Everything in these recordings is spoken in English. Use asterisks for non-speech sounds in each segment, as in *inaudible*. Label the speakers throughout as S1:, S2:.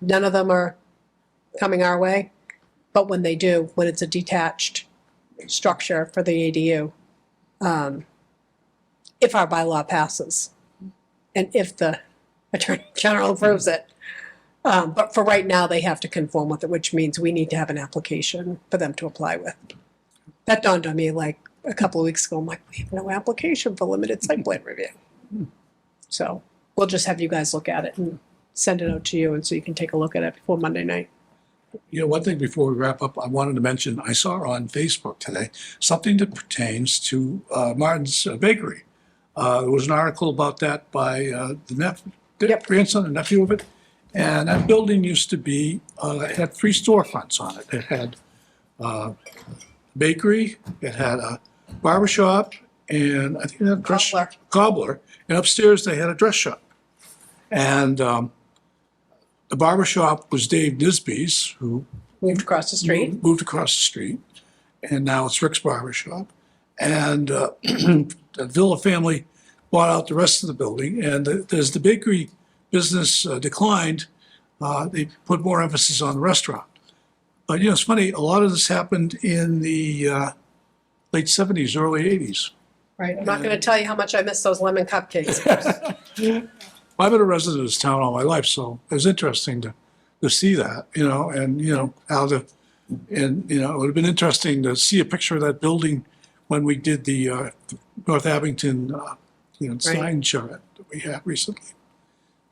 S1: none of them are coming our way. But when they do, when it's a detached structure for the ADU, um, if our bylaw passes and if the *laughs* Attorney General approves it. Um, but for right now, they have to conform with it, which means we need to have an application for them to apply with. That dawned on me like a couple of weeks ago. I'm like, we have no application for limited site plan review. So we'll just have you guys look at it and send it out to you and so you can take a look at it before Monday night.
S2: You know, one thing before we wrap up, I wanted to mention, I saw on Facebook today something that pertains to uh, Martin's Bakery. Uh, there was an article about that by uh, the nephew, the
S1: Yep.
S2: grandson and nephew of it. And that building used to be, uh, it had three storefronts on it. It had uh, bakery, it had a barber shop, and I think it had a dress
S1: Cobbler.
S2: cobbler. And upstairs they had a dress shop. And um, the barber shop was Dave Nisby's, who
S1: Moved across the street.
S2: Moved across the street, and now it's Rick's Barber Shop. And uh, *clears throat* the Villa family bought out the rest of the building, and the- as the bakery business uh, declined, uh, they put more emphasis on the restaurant. But, you know, it's funny, a lot of this happened in the uh, late 70s, early 80s.
S1: Right. I'm not going to tell you how much I miss those lemon *laughs* cupcakes.
S2: I've been a resident of this town all my life, so it was interesting to, to see that, you know, and, you know, how the, and, you know, it would have been interesting to see a picture of that building when we did the, uh, North Abington, uh, you know, sign charrette that we had recently.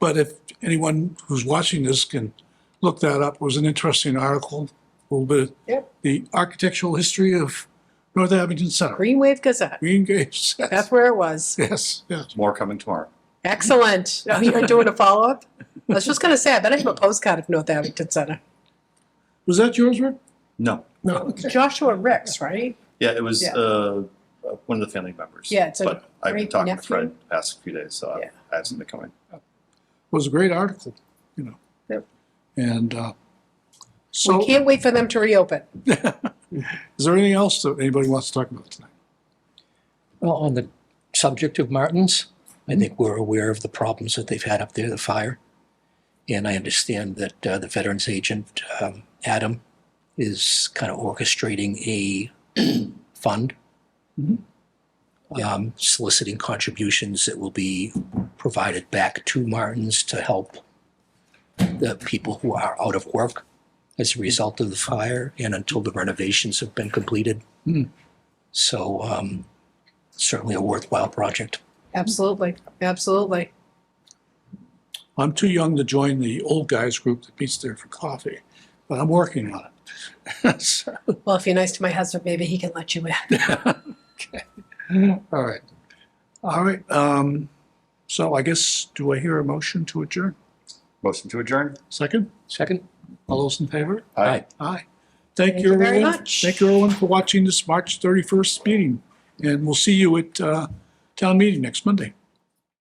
S2: But if anyone who's watching this can look that up, it was an interesting article, a little bit.
S1: Yep.
S2: The architectural history of North Abington Center,
S1: Green Wave Gazette.
S2: Green Gables, *laughs*
S1: That's where it was.
S2: yes, yes.
S3: More coming tomorrow.
S1: Excellent. Oh, you're doing a follow up? I was just going to say, I bet I have a postcard of North Abington Center.
S2: Was that yours, Rick?
S3: No.
S2: No, okay.
S1: Joshua Ricks, right?
S3: Yeah, it was
S1: Yeah.
S3: uh, one of the family members.
S1: Yeah, it's a
S3: But I've been
S1: great
S3: talking to
S1: nephew.
S3: Fred the past few days, so I-
S1: Yeah.
S3: I have something coming.
S2: was a great article, you know.
S1: Yep.
S2: And uh, so,
S1: We
S2: is
S1: can't wait for them to reopen.
S2: there anything else that anybody wants to talk about tonight?
S4: Well, on the subject of Martins, I think we're aware of the problems that they've had up there, the fire. And I understand that uh, the Veterans Agent, um, Adam, is kind of orchestrating a *clears throat* fund,
S2: Mhm.
S4: um, soliciting contributions that will be provided back to Martins to help the people who are out of work as a result of the fire and until the renovations have been completed.
S2: Hmm.
S4: So um, certainly a worthwhile project.
S1: Absolutely. Absolutely.
S2: I'm too young to join the old guys group that meets there for coffee, but I'm working on it. *laughs* So,
S1: Well, if you're nice to my husband, maybe he can let you in.
S2: all right. All right. Um, so I guess, do I hear a motion to adjourn?
S3: Motion to adjourn?
S2: Second?
S4: Second?
S2: All those in favor?
S3: Aye.
S2: Aye. Thank
S1: Thank
S2: you,
S1: you very
S2: everyone.
S1: much.
S2: Thank you, everyone, for watching this March 31st meeting. And we'll see you at uh, town meeting next Monday.